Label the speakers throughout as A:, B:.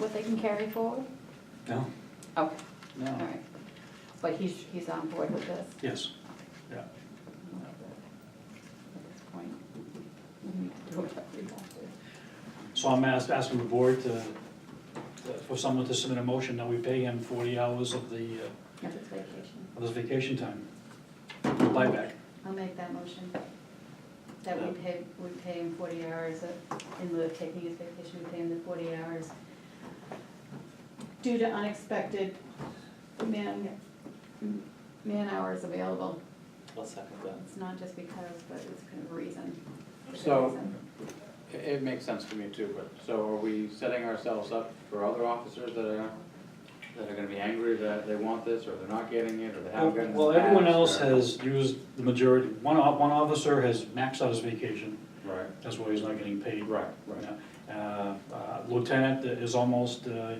A: that they can carry forward?
B: No,
A: Okay, all
B: no,
A: right. But he's, he's on board with this?
B: yes, yeah.
A: At this point? We can do whatever we want to.
B: So I'm ask- asking the board to, uh, for someone to submit a motion that we pay him forty hours of the, uh,
A: If it's vacation.
B: of his vacation time, buyback.
A: I'll make that motion. That we pay, we pay him forty hours of- in lieu of taking his vacation, we pay him the forty hours due to unexpected man, man hours available.
C: I'll second that.
A: It's not just because, but it's kind of a reason. It's a
C: So-
A: reason.
C: It, it makes sense to me too, but, so are we setting ourselves up for other officers that are, that are gonna be angry that they want this, or they're not getting it, or they haven't gotten it? in
B: Well,
C: the
B: everyone
C: past,
B: else
C: or-
B: has used the majority, one, o- one officer has maxed out his vacation,
C: Right,
B: that's why he's not getting paid.
C: right, right.
B: Uh, uh, Lieutenant is almost, uh,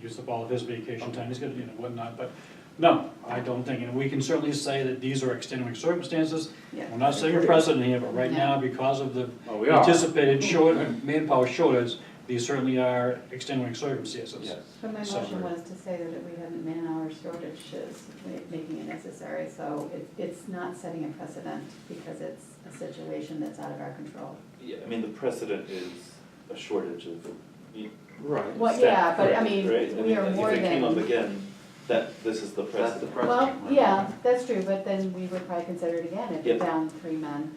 B: used up all of his vacation time, he's gonna, you know, whatnot, but, no, I don't think, and we can certainly say that these are extenuating circumstances.
A: Yeah.
B: We're not setting a precedent here, but right now, because of the
C: Well, we are, yes,
B: anticipated short, manpower shortage, these certainly are extenuating circumstances.
A: But my
B: So-
A: motion was to say that we have man-hour shortages, ma- making it necessary, so it- it's not setting a precedent because it's a situation that's out of our control.
D: Yeah, I mean, the precedent is a shortage of you-
C: right.
A: Well,
D: staff,
A: yeah, but I
D: correct,
A: mean,
D: right? I
A: we
D: mean,
A: are more
D: If it came up
A: than-
D: again, that, this is the
C: That's the
D: precedent.
C: precedent.
A: Well,
C: right.
A: yeah, that's true, but then we would probably consider it again if you're
D: Yeah.
A: down three men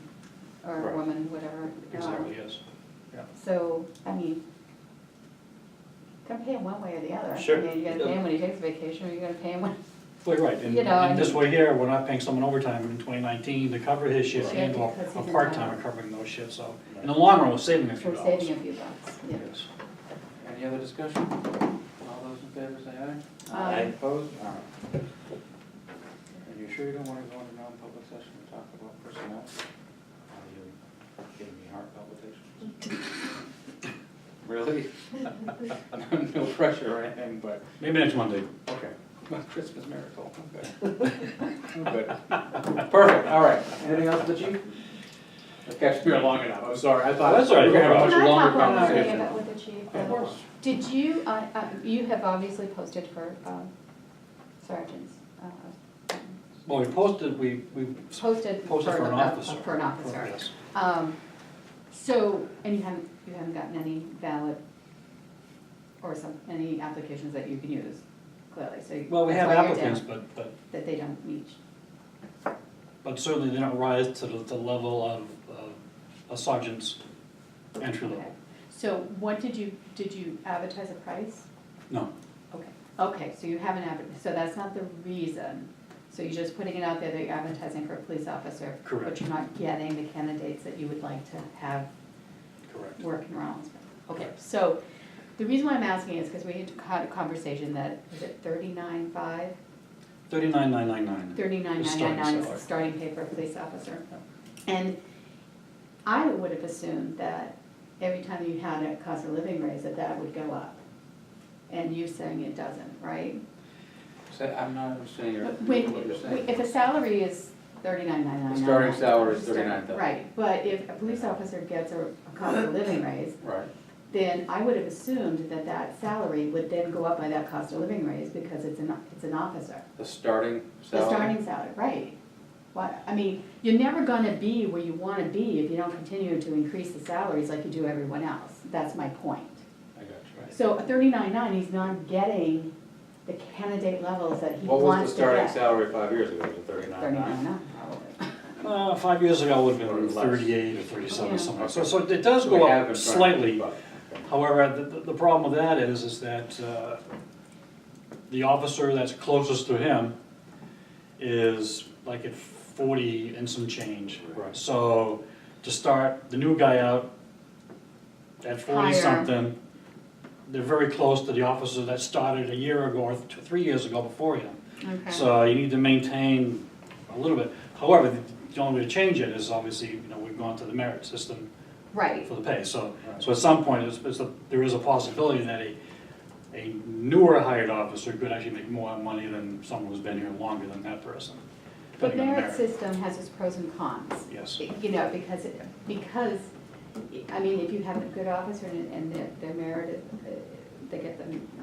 A: or a
D: Right.
A: woman, whatever.
B: Exactly,
A: Um,
B: yes.
A: So, I mean, gonna pay him one way or the other. I
D: Sure.
A: mean, You're gonna pay him when he takes vacation, or you're gonna pay him when.
B: Well, you're right, and
A: You know,
B: in this
A: and-
B: way here, we're not paying someone overtime in twenty nineteen to cover his shift
A: Yeah,
B: and or
A: because
B: a
A: he's in
B: part-timer
A: town.
B: covering those shifts, so. In the long run, we're saving a few
A: We're
B: dollars.
A: saving a few bucks, yeah.
B: Yes.
C: Any other discussion? All those in favor say aye.
A: Aye. Aye.
C: Opposed? All right. Are you sure you don't wanna go into non-public session and talk about personnel? Are you giving me heart palpitations? Really? No pressure or anything, but,
B: Maybe next Monday.
C: okay, Christmas miracle, I'm good. I'm good. Perfect, all right. Anything else, the chief? I've kept you here long enough, I'm sorry, I thought.
B: That's all right,
C: we were gonna have a
A: Can I
C: much longer
A: talk one more thing
C: conversation.
A: about with the chief?
C: Of course.
A: Did you, uh, uh, you have obviously posted for um, sergeants, uh,
B: Well, we posted, we, we
A: posted for
B: posted for an
A: the-
B: officer. Oh,
A: For an officer.
B: Yes.
A: Um, So, and you haven't, you haven't gotten any valid or some, any applications that you can use, clearly, so.
B: Well, we
A: that's
B: have
A: why you're
B: applicants,
A: down,
B: but, but,
A: That they don't meet.
B: but certainly they don't rise to the, the level of, of a sergeant's entry
A: Okay.
B: level.
A: So what did you, did you advertise a price?
B: No,
A: Okay, okay, so you haven't advertised, so that's not the reason. So you're just putting it out there that you're advertising for a police officer.
B: Correct.
A: But you're not getting the candidates that you would like to have
B: correct.
A: working around. Okay,
B: Correct.
A: so the reason why I'm asking is because we had had a conversation that, was it thirty-nine five?
B: Thirty-nine, nine, nine, nine.
A: Thirty-nine
B: It's
A: nine
B: starting
A: nine nine is the
B: salary.
A: starting pay for a police officer. And I would have assumed that every time you had a cost of living raise, that that would go up. And you're saying it doesn't, right?
C: Say, I'm not understanding your,
A: But
C: what you're
A: When,
C: saying.
A: if a salary is thirty-nine nine nine.
C: The starting salary is 39,000.
A: Right, but if a police officer gets a a cost of living raise,
C: Right,
A: then I would have assumed that that salary would then go up by that cost of living raise because it's an, it's an officer.
C: the starting
A: The
C: salary,
A: starting salary, right. What, I mean, you're never gonna be where you wanna be if you don't continue to increase the salaries like you do everyone else. That's my point.
C: I got you, right.
A: So a thirty-nine nine, he's not getting the candidate levels that he
C: What was
A: wants
C: the
A: to
C: starting
A: get.
C: salary five years ago, was it thirty-nine
A: Thirty-nine
C: nine?
A: nine, probably.
B: Uh, five years ago, it would have been
C: Or less.
B: thirty-eight or
A: Yeah.
B: thirty-seven, something. So, so it does go up slightly. However, the- the, the problem with that is, is that, uh, the officer that's closest to him is like at forty and some change.
C: Right,
B: So to start the new guy out at
A: Higher.
B: forty-something, they're very close to the officer that started a year ago or th- three years ago before him.
A: Okay.
B: So you need to maintain a little bit. However, the only way to change it is obviously, you know, we've gone to the merit system
A: Right,
B: for the pay. So, so at some point, it's, it's a, there is a possibility that a, a newer hired officer could actually make more money than someone who's been here longer than that person.
A: the
B: depending on
A: merit system has its pros and cons,
B: Yes,
A: you know, because, it- because, I mean, if you have a good officer and, and their, their merit, is, uh, they get the